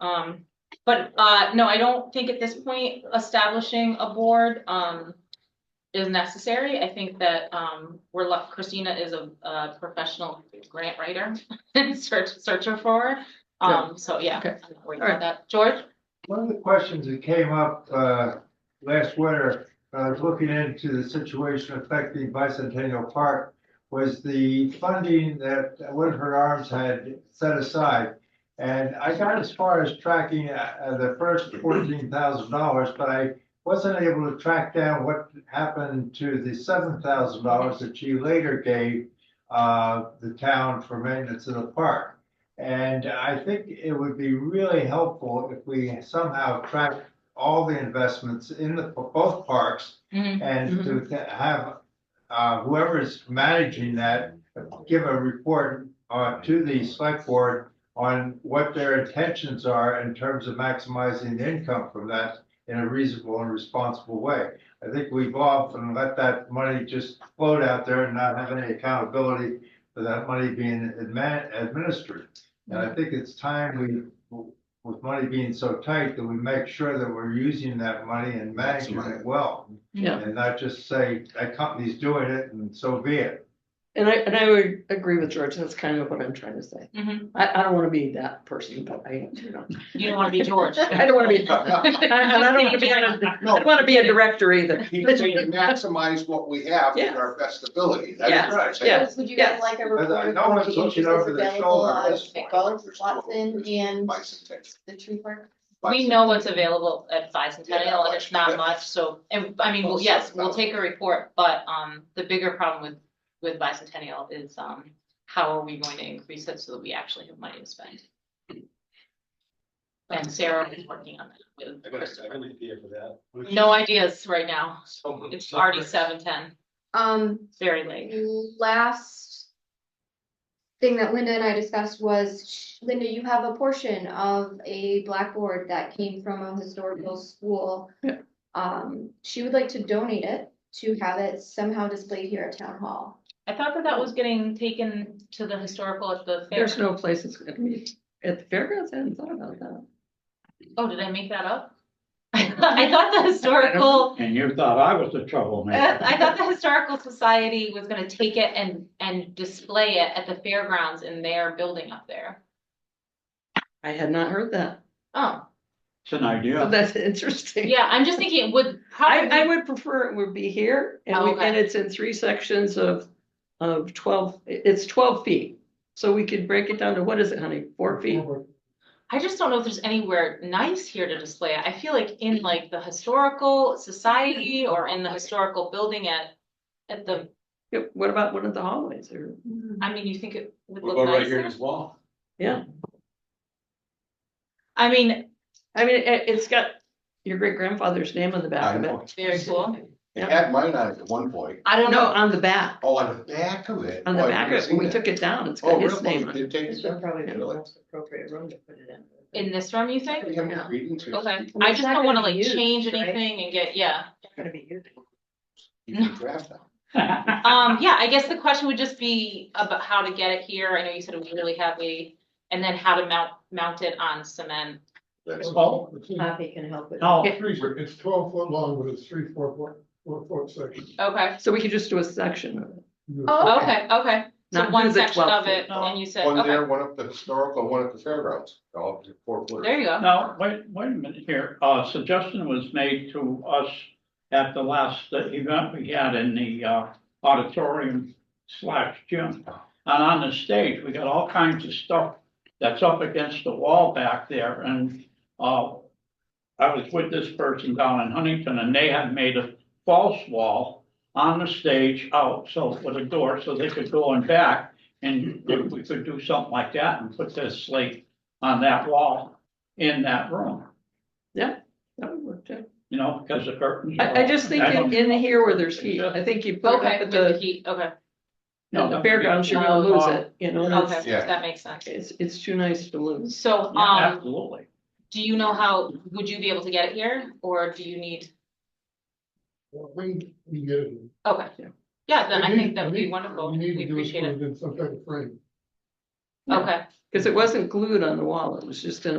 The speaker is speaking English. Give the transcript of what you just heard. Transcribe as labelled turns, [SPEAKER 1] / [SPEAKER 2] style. [SPEAKER 1] Um, but, uh, no, I don't think at this point establishing a board, um, is necessary. I think that, um, we're luck, Christina is a, a professional grant writer and search, searcher for, her. um, so yeah.
[SPEAKER 2] Okay.
[SPEAKER 1] I'm not worried
[SPEAKER 2] All right.
[SPEAKER 1] about that. George?
[SPEAKER 3] One of the questions that came up uh, last winter, uh, I was looking into the situation affecting Bicentennial Park, was the funding that Woodford Arms had set aside. And I got as far as tracking uh, the first fourteen thousand dollars, but I wasn't able to track down what happened to the seven thousand dollars that you later gave uh, the town for maintenance of the park. And I think it would be really helpful if we somehow track all the investments in the, both parks
[SPEAKER 1] Mhm.
[SPEAKER 3] and to th- have uh, whoever's managing that, give a report uh, to the select board on what their intentions are in terms of maximizing the income from that in a reasonable and responsible way. I think we've often let that money just float out there and not have any accountability for that money being admin- administered. And I think it's time we, with money being so tight, that we make sure that we're using that money and managing it well.
[SPEAKER 2] Yeah.
[SPEAKER 3] And not just say, that company's doing it and so be it.
[SPEAKER 2] And I, and I would agree with George, that's kind of what I'm trying to say.
[SPEAKER 1] Mhm.
[SPEAKER 2] I, I don't wanna be that person, but I, you know,
[SPEAKER 1] You don't wanna be George.
[SPEAKER 2] I don't wanna be, I- and I don't wanna be, on a- I don't wanna be a director either.
[SPEAKER 4] He can maximize what we have to our best ability. That is
[SPEAKER 2] Yeah.
[SPEAKER 4] what I'm saying.
[SPEAKER 2] Yeah.
[SPEAKER 5] Would you
[SPEAKER 2] yes.
[SPEAKER 5] guys like a
[SPEAKER 3] Because I
[SPEAKER 5] report
[SPEAKER 3] know
[SPEAKER 5] of
[SPEAKER 3] it's
[SPEAKER 5] the
[SPEAKER 3] looking
[SPEAKER 5] interest
[SPEAKER 3] over the
[SPEAKER 5] available
[SPEAKER 3] shoulder at
[SPEAKER 5] on
[SPEAKER 3] this point.
[SPEAKER 5] both Watson and
[SPEAKER 4] Bicentennial.
[SPEAKER 5] the tree park?
[SPEAKER 1] We know what's available at bicentennial and it's
[SPEAKER 4] Yeah.
[SPEAKER 1] not much, so, and I mean, well, yes, we'll take a report, but um, the bigger problem with. With bicentennial is um, how are we going to increase it so that we actually have money to spend? And Sarah is working on that
[SPEAKER 6] I
[SPEAKER 1] with
[SPEAKER 6] got a second
[SPEAKER 1] Christopher.
[SPEAKER 6] idea for that. which
[SPEAKER 1] No
[SPEAKER 6] is
[SPEAKER 1] ideas right now,
[SPEAKER 6] someone
[SPEAKER 1] it's already
[SPEAKER 6] separate.
[SPEAKER 1] seven ten,
[SPEAKER 7] Um,
[SPEAKER 1] it's very late.
[SPEAKER 7] last thing that Linda and I discussed was, Linda, you have a portion of a blackboard that came from a historical school.
[SPEAKER 2] Yeah.
[SPEAKER 7] Um, she would like to donate it to have it somehow displayed here at town hall.
[SPEAKER 1] I thought that that was getting taken to the historical at the fair,
[SPEAKER 2] There's no place it's gonna be, at the fairgrounds, I hadn't thought about that.
[SPEAKER 1] oh, did I make that up? I thought the historical.
[SPEAKER 8] And you thought I was the troublemaker.
[SPEAKER 1] I thought the historical society was gonna take it and, and display it at the fairgrounds in their building up there.
[SPEAKER 2] I had not heard that,
[SPEAKER 1] Oh,
[SPEAKER 8] It's an
[SPEAKER 2] so
[SPEAKER 8] idea.
[SPEAKER 2] that's interesting.
[SPEAKER 1] yeah, I'm just thinking it would
[SPEAKER 2] I, I
[SPEAKER 1] probably,
[SPEAKER 2] would prefer it would be here, and we,
[SPEAKER 1] Okay.
[SPEAKER 2] and it's in three sections of, of twelve, it's twelve feet. So we could break it down to, what is it, honey, four feet?
[SPEAKER 1] I just don't know if there's anywhere nice here to display it. I feel like in like the historical society or in the historical building at. At the,
[SPEAKER 2] Yeah, What about one of the hallways, or,
[SPEAKER 1] I mean, you think it would
[SPEAKER 6] We'll
[SPEAKER 1] look
[SPEAKER 6] go right here
[SPEAKER 1] nicer?
[SPEAKER 6] as well.
[SPEAKER 1] I mean,
[SPEAKER 2] I mean, it, it's got your great grandfather's name on the back
[SPEAKER 4] I
[SPEAKER 2] of it.
[SPEAKER 4] know.
[SPEAKER 1] very cool.
[SPEAKER 4] It had mine on it at one point.
[SPEAKER 1] I don't
[SPEAKER 2] No,
[SPEAKER 1] know.
[SPEAKER 2] on the back,
[SPEAKER 4] Oh, on the back of it.
[SPEAKER 2] on the
[SPEAKER 4] Oh, I've
[SPEAKER 2] back,
[SPEAKER 4] never
[SPEAKER 2] of it.
[SPEAKER 4] seen
[SPEAKER 2] when we
[SPEAKER 4] that.
[SPEAKER 2] took it down, it's
[SPEAKER 4] Oh,
[SPEAKER 2] got his
[SPEAKER 4] really?
[SPEAKER 2] name
[SPEAKER 4] You
[SPEAKER 2] on it.
[SPEAKER 4] did take it down?
[SPEAKER 2] probably
[SPEAKER 4] the most
[SPEAKER 2] appropriate room to put it in.
[SPEAKER 1] In this room, you think?
[SPEAKER 4] We haven't agreed into it.
[SPEAKER 1] Okay,
[SPEAKER 2] it's
[SPEAKER 1] I just
[SPEAKER 2] not
[SPEAKER 1] don't wanna
[SPEAKER 2] gonna
[SPEAKER 1] like
[SPEAKER 2] be used,
[SPEAKER 1] change
[SPEAKER 2] right?
[SPEAKER 1] anything and get, yeah.
[SPEAKER 2] Gonna be you.
[SPEAKER 4] You can draft that.
[SPEAKER 1] Um, yeah, I guess the question would just be about how to get it here. I know you said it was really heavy. And then how to mount, mount it on cement.
[SPEAKER 4] That's-
[SPEAKER 8] Well,
[SPEAKER 7] Happy can help with.
[SPEAKER 8] no,
[SPEAKER 9] Three, foot- it's twelve foot long, but it's three, four foot, four foot section.
[SPEAKER 1] Okay,
[SPEAKER 2] So we could just do a section of it.
[SPEAKER 7] Oh,
[SPEAKER 1] okay, okay. So
[SPEAKER 2] Not
[SPEAKER 1] one
[SPEAKER 2] do the
[SPEAKER 1] section
[SPEAKER 2] 12
[SPEAKER 1] of it and you said,
[SPEAKER 4] One
[SPEAKER 1] okay,
[SPEAKER 4] there, one at the historical, one at the fairgrounds. All four foot.
[SPEAKER 1] there you go.
[SPEAKER 8] now, wait, wait a minute here. Uh, suggestion was made to us at the last uh, event we had in the uh, auditorium slash gym. And on the stage, we got all kinds of stuff that's up against the wall back there and, uh, I was with this person down in Huntington and they had made a false wall on the stage out, so with a door, so they could go in back. And if we could do something like that and put this slate on that wall in that room,
[SPEAKER 2] That would work too.
[SPEAKER 8] you know, because the curtains. are
[SPEAKER 2] I, I
[SPEAKER 8] up.
[SPEAKER 2] just think
[SPEAKER 8] don't-
[SPEAKER 2] in, in here where there's heat, I think you put it
[SPEAKER 1] Okay,
[SPEAKER 2] up at
[SPEAKER 1] with the
[SPEAKER 2] the,
[SPEAKER 1] heat, okay,
[SPEAKER 2] at the fairgrounds, you're gonna lose it, you know? and it's-
[SPEAKER 1] okay,
[SPEAKER 4] Yeah.
[SPEAKER 1] that makes sense.
[SPEAKER 2] It's, it's too nice to lose.
[SPEAKER 1] So,
[SPEAKER 8] Yeah,
[SPEAKER 1] um,
[SPEAKER 8] Absolutely.
[SPEAKER 1] do you know how, would you be able to get it here or do you need,
[SPEAKER 9] We, we get it.
[SPEAKER 1] okay. Yeah, then I
[SPEAKER 9] We
[SPEAKER 1] think
[SPEAKER 9] need-
[SPEAKER 1] that would
[SPEAKER 9] we
[SPEAKER 1] be
[SPEAKER 9] need-
[SPEAKER 1] wonderful.
[SPEAKER 9] we need to
[SPEAKER 1] We
[SPEAKER 9] do is
[SPEAKER 1] appreciate
[SPEAKER 9] put
[SPEAKER 1] it.
[SPEAKER 9] In some type of frame.
[SPEAKER 2] Yeah.
[SPEAKER 1] Okay.
[SPEAKER 2] Cause it wasn't glued on the wall, it was just in a